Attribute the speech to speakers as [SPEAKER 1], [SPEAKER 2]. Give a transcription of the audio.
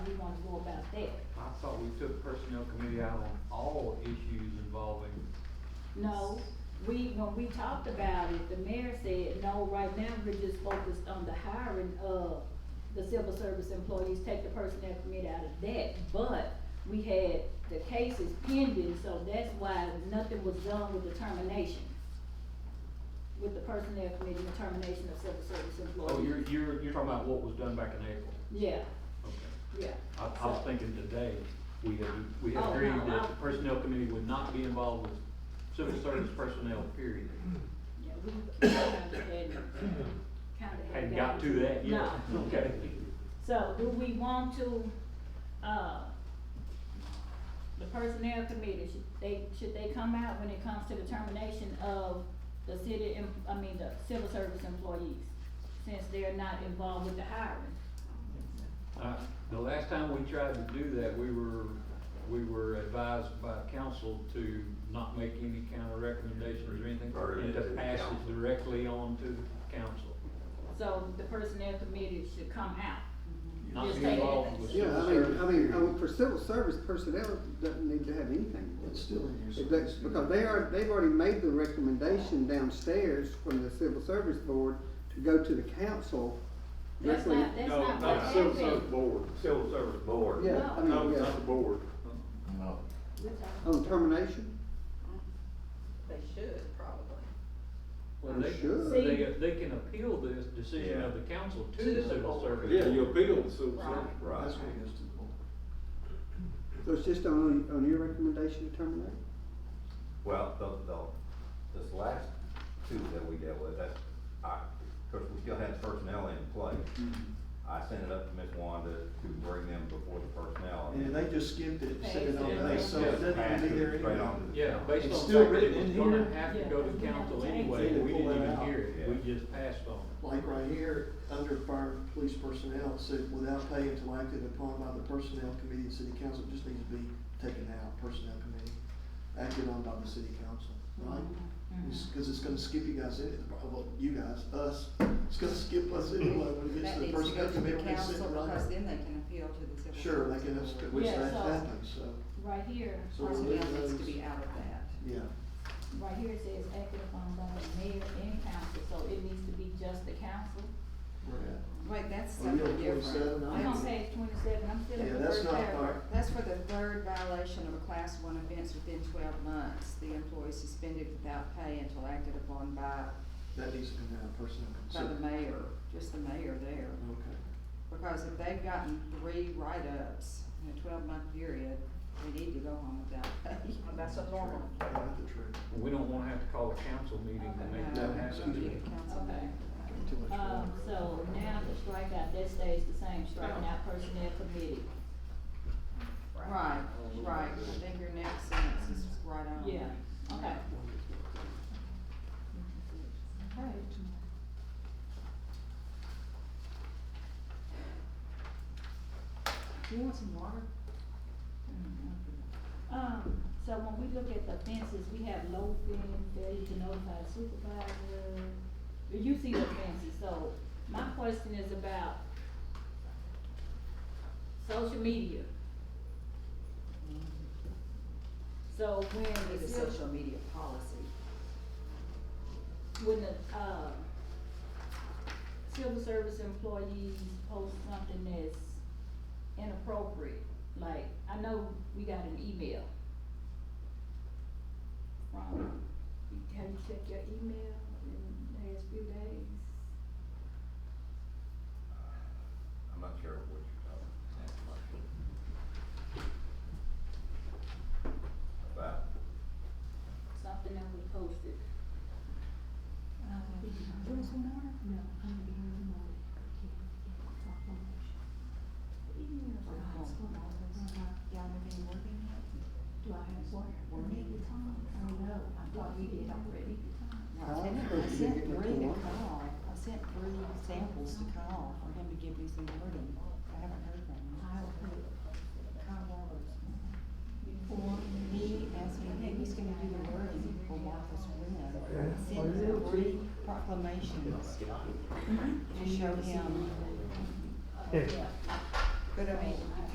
[SPEAKER 1] want to go about that.
[SPEAKER 2] I thought we took personnel committee out on all issues involving,
[SPEAKER 1] No, we, when we talked about it, the mayor said, no, right now, we're just focused on the hiring of the civil service employees, take the personnel committee out of that, but we had the cases pending, so that's why nothing was done with the termination. With the personnel committee and termination of civil service employees.
[SPEAKER 2] oh, you're, you're, you're talking about what was done back in April?
[SPEAKER 1] Yeah,
[SPEAKER 2] Okay.
[SPEAKER 1] yeah.
[SPEAKER 2] I, I was thinking today, we had, we had
[SPEAKER 1] Oh,
[SPEAKER 2] agreed
[SPEAKER 1] no,
[SPEAKER 2] that
[SPEAKER 1] I-
[SPEAKER 2] the personnel committee would not be involved with civil service personnel, period.
[SPEAKER 1] Yeah, we kinda had, kinda had.
[SPEAKER 2] Had got to that yet,
[SPEAKER 1] No.
[SPEAKER 2] okay.
[SPEAKER 1] So do we want to, uh, the personnel committee, should they, should they come out when it comes to the termination of the city, em- I mean, the civil service employees? Since they're not involved with the hiring,
[SPEAKER 2] Uh, the last time we tried to do that, we were, we were advised by council to not make any kind of recommendations or anything,
[SPEAKER 3] Burden
[SPEAKER 2] and
[SPEAKER 3] it
[SPEAKER 2] to
[SPEAKER 3] to the
[SPEAKER 2] pass
[SPEAKER 3] council.
[SPEAKER 2] it directly on to the council.
[SPEAKER 1] so the personnel committee should come out.
[SPEAKER 2] Not
[SPEAKER 1] Just
[SPEAKER 2] be
[SPEAKER 1] take
[SPEAKER 2] involved
[SPEAKER 1] it.
[SPEAKER 2] with
[SPEAKER 4] Yeah,
[SPEAKER 2] civil
[SPEAKER 4] I mean,
[SPEAKER 2] service.
[SPEAKER 4] I mean, I
[SPEAKER 2] period.
[SPEAKER 4] mean, for civil service personnel, it doesn't need to have anything. to do
[SPEAKER 5] It's
[SPEAKER 4] with
[SPEAKER 5] still
[SPEAKER 4] it.
[SPEAKER 5] in your
[SPEAKER 4] If they-
[SPEAKER 5] service.
[SPEAKER 4] Because they are, they've already made the recommendation downstairs from the civil service board to go to the council.
[SPEAKER 1] That's
[SPEAKER 4] directly-
[SPEAKER 1] not, that's
[SPEAKER 6] No,
[SPEAKER 1] not what
[SPEAKER 6] not the civil service
[SPEAKER 1] happened.
[SPEAKER 6] board,
[SPEAKER 3] Civil Service Board.
[SPEAKER 4] Yeah, I
[SPEAKER 6] no,
[SPEAKER 4] mean,
[SPEAKER 6] not the
[SPEAKER 4] yeah,
[SPEAKER 6] board.
[SPEAKER 5] No.
[SPEAKER 1] We're talking-
[SPEAKER 4] on termination,
[SPEAKER 7] They should, probably.
[SPEAKER 2] Well,
[SPEAKER 4] I'm
[SPEAKER 2] they,
[SPEAKER 4] sure.
[SPEAKER 2] they, they can appeal this decision of the council to
[SPEAKER 7] To
[SPEAKER 2] the
[SPEAKER 7] the
[SPEAKER 2] civil
[SPEAKER 7] board.
[SPEAKER 2] service.
[SPEAKER 6] Yeah, you appeal to civil
[SPEAKER 7] Right.
[SPEAKER 6] service.
[SPEAKER 3] Right.
[SPEAKER 5] That's what it is to the board.
[SPEAKER 4] so it's just on, on your recommendation to terminate?
[SPEAKER 3] Well, the, the, this last two that we dealt with, that's, I, cause we still had personnel in play.
[SPEAKER 5] Mm-hmm.
[SPEAKER 3] I sent it up to Ms. Wanda to bring them before the personnel.
[SPEAKER 5] And they just skipped it, said it on
[SPEAKER 1] Yeah,
[SPEAKER 3] And
[SPEAKER 5] the,
[SPEAKER 3] they
[SPEAKER 5] so
[SPEAKER 3] just
[SPEAKER 5] it doesn't
[SPEAKER 3] passed
[SPEAKER 5] even be
[SPEAKER 3] it
[SPEAKER 5] there
[SPEAKER 3] straight
[SPEAKER 5] anymore.
[SPEAKER 3] on to the
[SPEAKER 2] Yeah,
[SPEAKER 3] council.
[SPEAKER 2] based
[SPEAKER 5] It's
[SPEAKER 2] on
[SPEAKER 5] still
[SPEAKER 2] the fact that
[SPEAKER 5] written
[SPEAKER 2] it was
[SPEAKER 5] in
[SPEAKER 2] gonna
[SPEAKER 5] here.
[SPEAKER 2] have to
[SPEAKER 1] Yeah,
[SPEAKER 2] go
[SPEAKER 1] we
[SPEAKER 2] to
[SPEAKER 1] didn't
[SPEAKER 2] council
[SPEAKER 1] change
[SPEAKER 2] anyway,
[SPEAKER 5] it.
[SPEAKER 2] and we
[SPEAKER 5] Pull
[SPEAKER 2] didn't
[SPEAKER 5] that
[SPEAKER 2] even
[SPEAKER 5] out.
[SPEAKER 2] hear it, we just passed on it.
[SPEAKER 5] Like right here, under fire, police personnel, it said without pay until acted upon by the personnel committee and city council, it just needs to be taken out, personnel committee, acted on by the city council, right?
[SPEAKER 7] Mm-hmm.
[SPEAKER 5] It's- Cause it's gonna skip you guys in, uh, well, you guys, us, it's gonna skip us anyway when it gets
[SPEAKER 7] That
[SPEAKER 5] to the
[SPEAKER 7] needs to go
[SPEAKER 5] personnel
[SPEAKER 7] to the
[SPEAKER 5] committee, it's
[SPEAKER 7] council,
[SPEAKER 5] sitting
[SPEAKER 7] because
[SPEAKER 5] right.
[SPEAKER 7] then they can appeal to the civil.
[SPEAKER 5] Sure, they
[SPEAKER 7] service
[SPEAKER 5] can,
[SPEAKER 7] board.
[SPEAKER 5] which
[SPEAKER 1] Yeah,
[SPEAKER 5] that's
[SPEAKER 1] so-
[SPEAKER 5] happened, so,
[SPEAKER 1] Right here,
[SPEAKER 5] so we'll leave
[SPEAKER 7] Personnel needs to
[SPEAKER 5] those.
[SPEAKER 7] be out of that.
[SPEAKER 5] yeah,
[SPEAKER 1] right here it says acted upon by the mayor and council, so it needs to be just the council.
[SPEAKER 5] we're at.
[SPEAKER 7] Wait, that's
[SPEAKER 5] Are you on
[SPEAKER 7] something different.
[SPEAKER 5] 27?
[SPEAKER 1] I'm on
[SPEAKER 7] That's-
[SPEAKER 1] page twenty-seven, I'm still
[SPEAKER 5] Yeah,
[SPEAKER 1] in the
[SPEAKER 5] that's
[SPEAKER 1] first
[SPEAKER 5] not
[SPEAKER 1] paragraph.
[SPEAKER 5] part-
[SPEAKER 7] That's for the third violation of a class one offense within twelve months. The employee suspended without pay until acted upon by,
[SPEAKER 5] That needs to come down, personnel.
[SPEAKER 7] by the
[SPEAKER 5] consent.
[SPEAKER 7] mayor, just the mayor there.
[SPEAKER 5] Okay.
[SPEAKER 7] Because if they've gotten three write-ups in a twelve-month period, they need to go home without pay. Uh, That's a normal.
[SPEAKER 5] Yeah, that's the truth.
[SPEAKER 2] We don't wanna have to call a council meeting to make
[SPEAKER 5] No,
[SPEAKER 7] uh,
[SPEAKER 2] that
[SPEAKER 5] it's gonna be
[SPEAKER 2] happen.
[SPEAKER 1] Okay.
[SPEAKER 5] Too much
[SPEAKER 1] Um,
[SPEAKER 5] water.
[SPEAKER 1] so now the strikeout, that stays the same, striking out personnel committee.
[SPEAKER 7] Right, right, I think your next sentence is right on.
[SPEAKER 1] Yeah, okay.
[SPEAKER 7] Okay. Do you want some water?
[SPEAKER 1] Um, so when we look at the fences, we have low fin, failure to notify supervisor. You see the fences, so my question is about social media. So when
[SPEAKER 7] We need
[SPEAKER 1] the
[SPEAKER 7] a
[SPEAKER 1] civil
[SPEAKER 7] social media policy.
[SPEAKER 1] when the, uh, civil service employees post something that's inappropriate, like, I know we got an email from, have you checked your email in the last few days?
[SPEAKER 3] I'm not sure what you're talking about. About,
[SPEAKER 1] Something that we posted.
[SPEAKER 8] Want some more? No, I'm gonna be here in the morning. Do
[SPEAKER 7] Y'all have been working
[SPEAKER 8] I have water? Maybe Tom, I don't know, I thought you did already.
[SPEAKER 7] yet?
[SPEAKER 4] I was
[SPEAKER 7] I
[SPEAKER 4] supposed to
[SPEAKER 7] sent
[SPEAKER 4] get with
[SPEAKER 7] Bree
[SPEAKER 4] the one.
[SPEAKER 7] to call, I sent Bree samples to call for him to give me some wording, I haven't heard from him.
[SPEAKER 8] I will put Kyle Roberts. Or me as
[SPEAKER 7] I think he's gonna do the wording for Martha's Vineyard. Send him three proclamations to show him.
[SPEAKER 1] Yeah.
[SPEAKER 7] But I mean,